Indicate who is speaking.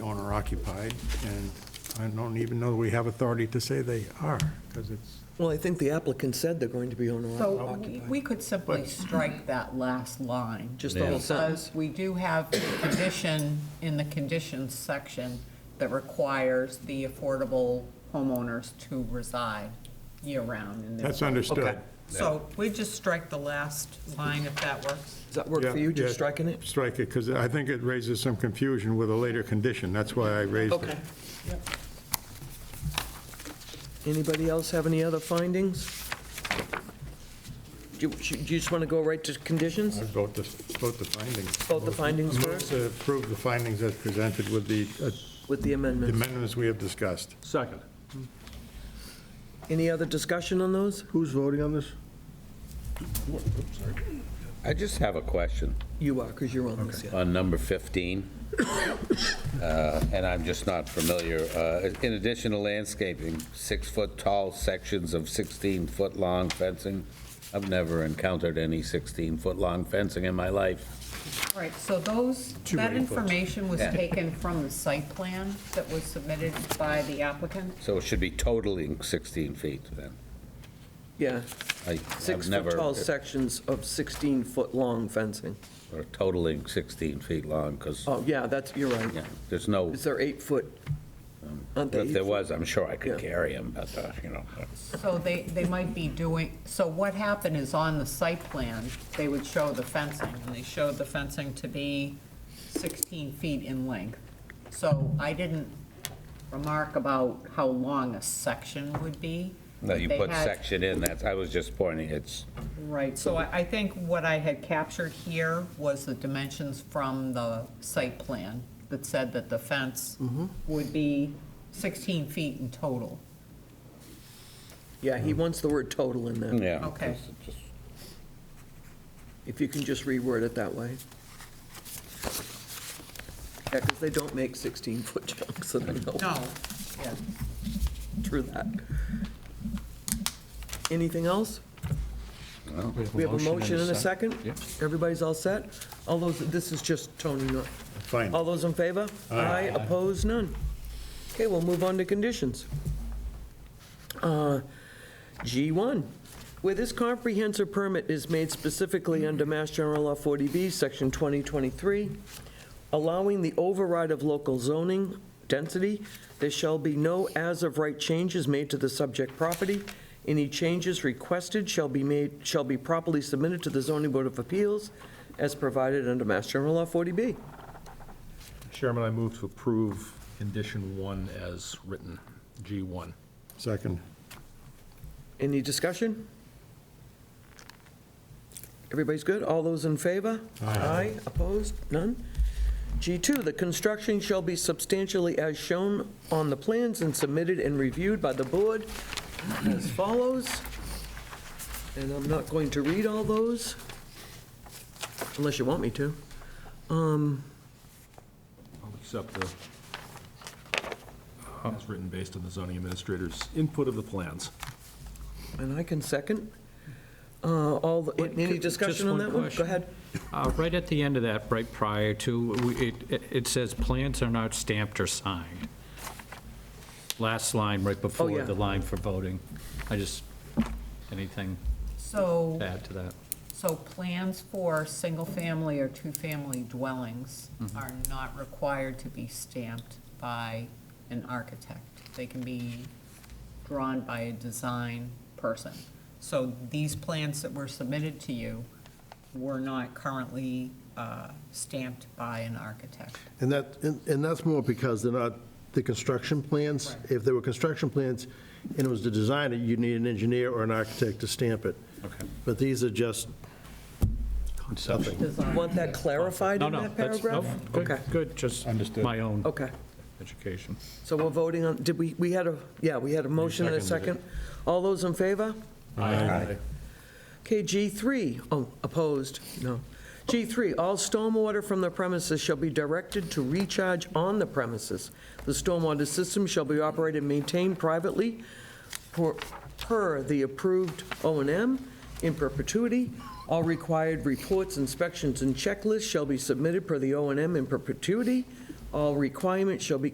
Speaker 1: are occupied, and I don't even know we have authority to say they are, because it's,
Speaker 2: Well, I think the applicant said they're going to be owner
Speaker 3: So we-
Speaker 2: occupied.
Speaker 3: we could simply strike that last line.
Speaker 2: Just the whole sentence.
Speaker 3: Because we do have a condition in the conditions section that requires the affordable homeowners to reside year-round in their.
Speaker 1: that's understood.
Speaker 2: Okay.
Speaker 3: So we just strike the last line if that works.
Speaker 2: Does that work for you,
Speaker 1: Yeah,
Speaker 2: just
Speaker 1: yeah.
Speaker 2: striking it?
Speaker 1: Strike it, because I think it raises some confusion with a later condition, that's why I raised it.
Speaker 2: Okay. Anybody else have any other findings? Do you, do you just want to go right to conditions?
Speaker 1: I'd vote the, vote the findings.
Speaker 2: Vote the findings
Speaker 1: Move
Speaker 2: first?
Speaker 1: to Approve uh, the findings as presented with the uh,
Speaker 2: With the amendments.
Speaker 1: amendments we have discussed.
Speaker 4: Second.
Speaker 2: Any other discussion on those?
Speaker 4: Who's voting on this?
Speaker 5: I just have a question
Speaker 2: You are, because you're on this, yeah.
Speaker 5: on number 15, uh, and I'm just not familiar. Uh, In addition to landscaping, six-foot-tall sections of 16-foot-long fencing, I've never encountered any 16-foot-long fencing in my life.
Speaker 3: Right, so those, that information was
Speaker 5: Yeah.
Speaker 3: taken from the site plan that was submitted by the applicant.
Speaker 5: So it should be totaling 16 feet then.
Speaker 2: Yeah,
Speaker 5: I- I've never
Speaker 2: six-foot-tall sections of 16-foot-long fencing.
Speaker 5: or Totaling 16 feet long, because,
Speaker 2: Oh, yeah, that's, you're right.
Speaker 5: yeah, there's no,
Speaker 2: Is there eight-foot? Aren't they
Speaker 5: if there
Speaker 2: eight?
Speaker 5: was, I'm sure I
Speaker 2: Yeah.
Speaker 5: could carry them, but, uh, you know.
Speaker 3: So they, they might be doing, so what happened is on the site plan, they would show the fencing, and they showed the fencing to be 16 feet in length. So I didn't remark about how long a section would be.
Speaker 5: No, you
Speaker 3: They
Speaker 5: put
Speaker 3: had-
Speaker 5: section in, that's, I was just pointing, it's
Speaker 3: Right, so I, I think what I had captured here was the dimensions from the site plan that said that the fence would be 16 feet in total.
Speaker 2: Yeah, he wants the word total in there.
Speaker 5: Yeah.
Speaker 3: Okay.
Speaker 2: If you can just reword it that way. Yeah, because they don't make 16-foot chunks, and I know
Speaker 3: No, yeah.
Speaker 2: through that. Anything else? We have a motion and a second? Everybody's all set? All those, this is just Tony, not,
Speaker 1: Fine.
Speaker 2: all those in favor? Aye. Opposed, none. Okay, we'll move on to conditions. Uh, G1, where this comprehensive permit is made specifically under Mass General Law 40B, Section 2023, allowing the override of local zoning density, there shall be no as-of-right changes made to the subject property. Any changes requested shall be made, shall be properly submitted to the zoning board of appeals as provided under Mass General Law 40B.
Speaker 4: Chairman, I move to approve condition one as written, G1.
Speaker 1: Second.
Speaker 2: Any discussion? Everybody's good? All those in favor? Aye. Opposed? None? G2, the construction shall be substantially as shown on the plans and submitted and reviewed by the board as follows. And I'm not going to read all those, unless you want me to.
Speaker 4: I'll accept the, as written based on the zoning administrator's input of the plans.
Speaker 2: And I can second. Uh, All, the- any
Speaker 6: Just
Speaker 2: discussion on
Speaker 6: one
Speaker 2: that one? Go
Speaker 6: question.
Speaker 2: ahead.
Speaker 6: Uh, Right at the end of that, right prior to, we- it- it it says, "Plans are not stamped or signed." Last line, right
Speaker 2: Oh, yeah.
Speaker 6: before the line for voting. I just, anything
Speaker 3: So.
Speaker 6: to add to that?
Speaker 3: So plans for single-family or two-family dwellings are not required to be stamped by an architect. They can be drawn by a design person. So these plans that were submitted to you were not currently uh, stamped by an architect.
Speaker 7: And that, and and that's more because they're not the construction plans.
Speaker 3: Right.
Speaker 7: If there were construction plans and it was to design it, you'd need an engineer or an architect to stamp it. Okay. But these are just nothing.
Speaker 3: Design.
Speaker 2: Want that clarified
Speaker 6: No,
Speaker 2: in
Speaker 6: no,
Speaker 2: that
Speaker 6: that's, no,
Speaker 2: paragraph?
Speaker 6: good,
Speaker 2: Okay, Oh.
Speaker 6: good, just
Speaker 4: Understood.
Speaker 6: my own
Speaker 2: okay.
Speaker 6: education.
Speaker 2: So we're voting on, did we, we had a, yeah, we had a motion and a second. All those in favor? Okay, G3, oh, opposed, no. G3, all stormwater from the premises shall be directed to recharge on the premises. The stormwater system shall be operated and maintained privately per, per the approved O and M in perpetuity. All required reports, inspections, and checklists shall be submitted per the O and M in perpetuity. All requirements shall be